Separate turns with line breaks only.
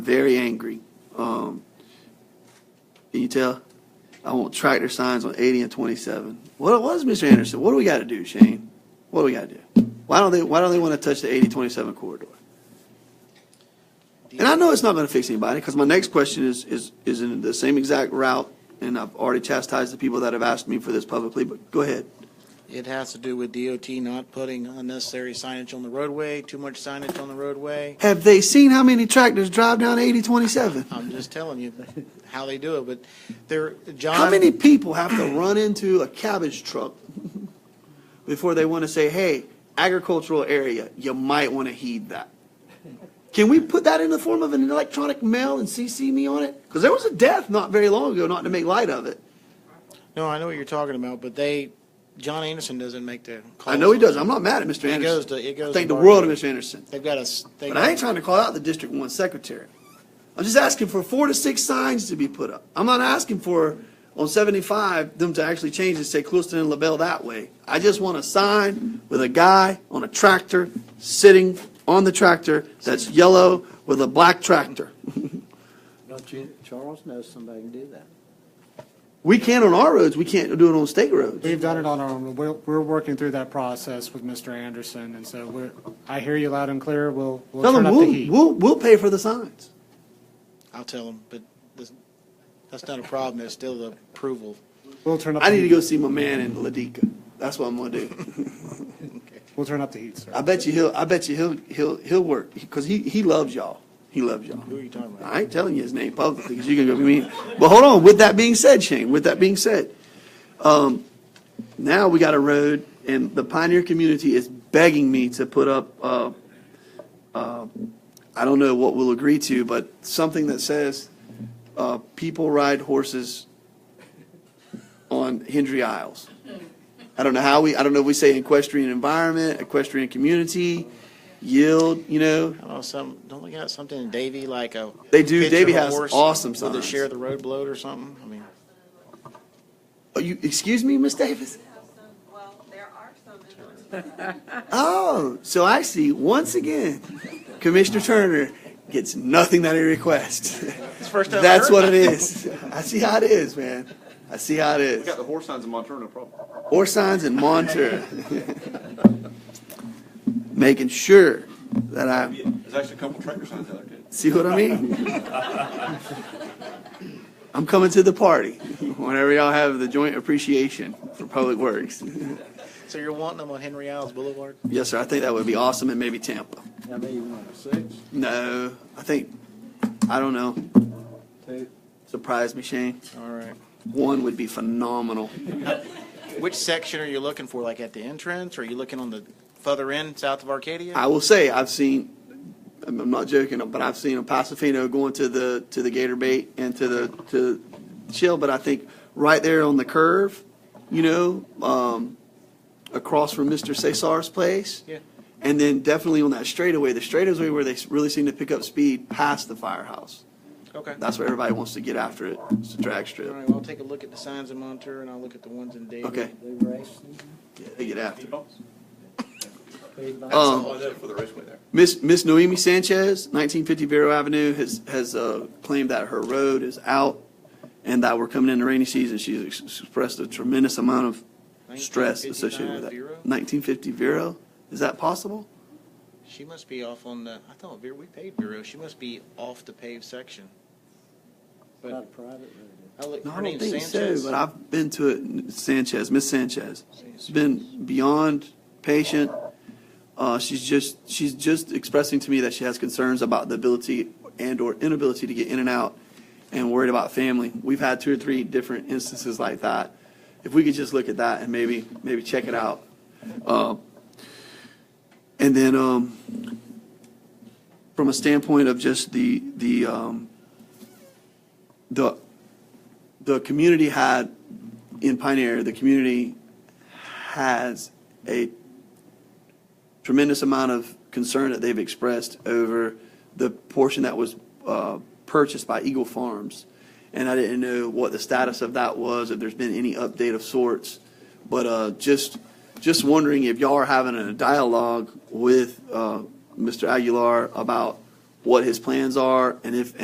very angry. Um, can you tell? I want tractor signs on 80 and 27. What was, Mr. Anderson? What do we got to do, Shane? What do we got to do? Why don't they, why don't they want to touch the 80, 27 corridor? And I know it's not going to fix anybody, because my next question is, is, is in the same exact route, and I've already chastised the people that have asked me for this publicly, but go ahead.
It has to do with DOT not putting unnecessary signage on the roadway, too much signage on the roadway.
Have they seen how many tractors drive down 80, 27?
I'm just telling you how they do it, but there, John.
How many people have to run into a cabbage truck before they want to say, hey, agricultural area, you might want to heed that? Can we put that in the form of an electronic mail and CC me on it? Because there was a death not very long ago, not to make light of it.
No, I know what you're talking about, but they, John Anderson doesn't make the calls.
I know he does. I'm not mad at Mr.
It
Anderson.
goes to, it goes.
I
to
Thank the
Mark.
world of Mr. Anderson.
They've got us.
But I ain't trying to call out the District One secretary. I'm just asking for four to six signs to be put up. I'm not asking for, on seventy-five, them to actually change and say Clueston and LaBelle that way. I just want a sign with a guy on a tractor, sitting on the tractor, that's yellow with a black tractor.
Don't you, Charles knows somebody can do that.
We can on our roads, we can't do it on state roads.
We've done it on our own. We're, we're working through that process with Mr. Anderson, and so we're, I hear you loud and clear. We'll, we'll
Tell
turn
them,
up the
we'll,
heat.
we'll, we'll pay for the signs.
I'll tell them, but this- that's not a problem. It's still the approval.
We'll turn up,
I
the
need to
heat.
go see my man in Ladika. That's what I'm gonna do.
we'll turn up the heat, sir.
I bet you he'll, I bet you he'll, he'll, he'll work, because he, he loves y'all. He loves y'all.
Who are you talking about?
I ain't telling you his name publicly because you're gonna go mean. But hold on. With that being said, Shane. With that being said, um, now we got a road, and the Pioneer community is begging me to put up. Uh, uh, I don't know what we'll agree to, but something that says uh, people ride horses on Hendry Isles. I don't know how we. I don't know if we say equestrian environment, equestrian community, yield. You know,
I don't know, some, don't they got something in Davy, like a.
They do.
picture of
Davie
a
has
horse
awesome
With
signs.
a share of the road bloat or something. I mean,
Oh, you excuse me, Miss Davis.
have some, well, there are some in North
Oh, so I see. Once again, Commissioner Turner gets nothing that he requests.
it's the first time. I
That's
heard
what
about
it is. I see how it is, man. I see how it
We
is.
got the horse signs in Montour, no problem.
Or signs in Montour. Making sure that I,
There's actually a couple tractor signs out there, too.
see what I mean? I'm coming to the party whenever y'all have the joint appreciation for Public Works.
So you're wanting them on Henry Isles Boulevard?
Yes, sir. I think that would be awesome and maybe Tampa.
How many you want, six,
No, I think, I don't know.
two?
Surprise me, Shane.
All right.
One would be phenomenal.
Which section are you looking for? Like at the entrance? Or are you looking on the further end, south of Arcadia?
I will say, I've seen, I'm I'm not joking, but I've seen a Pasofino going to the, to the Gator Bait and to the, to Shell, but I think right there on the curve, you know, um, across from Mr. Cesar's place.
Yeah.
And then definitely on that straightaway, the straightaway where they really seem to pick up speed past the firehouse.
Okay.
That's where everybody wants to get after it. It's a drag
All
strip.
right, well, I'll take a look at the signs in Montour and I'll look at the ones in Davie.
Okay,
Blue racing,
yeah, they get after it.
big bike.
Um,
Oh, that's for the raceway there.
Miss Miss Noemi Sanchez, 1950 Vero Avenue, has has uh, claimed that her road is out and that we're coming into rainy season. She's ex- expressed a tremendous amount of stress associated with that.
1955 Vero?
1950 Vero, is that possible?
She must be off on the, I thought Vero, we paid Vero. She must be off the paved section.
Not a
But
private road.
I look,
No,
her
I don't
name's
think
Sanchez.
so. But I've been to it, Sanchez, Miss Sanchez. She's been beyond patient. Uh, she's just she's just expressing to me that she has concerns about the ability and or inability to get in and out, and worried about family. We've had two or three different instances like that. If we could just look at that and maybe maybe check it out, uh, and then um, from a standpoint of just the the um, the the community had in Pioneer, the community has a tremendous amount of concern that they've expressed over the portion that was uh, purchased by Eagle Farms. And I didn't know what the status of that was, if there's been any update of sorts. But uh, just, just wondering if y'all are having a dialogue with uh, Mr. Aguilar about what his plans are, and if